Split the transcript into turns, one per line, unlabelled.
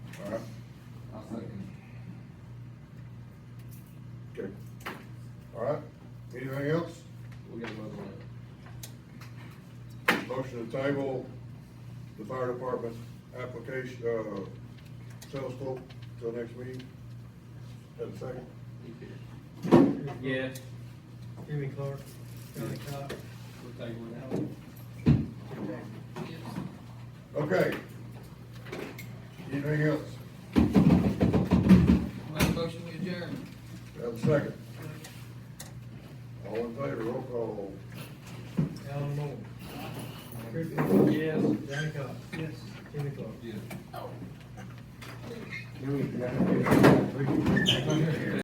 Okay,
All right, anything else?
we'll get another one.
Motion to table the fire department application, uh, sales quote till next meeting. Have a second?
Yes,
Jimmy Clark, Johnny Cox.
we'll take one out.
Okay. Anything else?
Make a motion to adjourn.
Have a second? All in favor, roll call.
Alan Moore. Chris Moore.
Yes.
Johnny Cox. Yes. Jimmy Clark.
Yeah.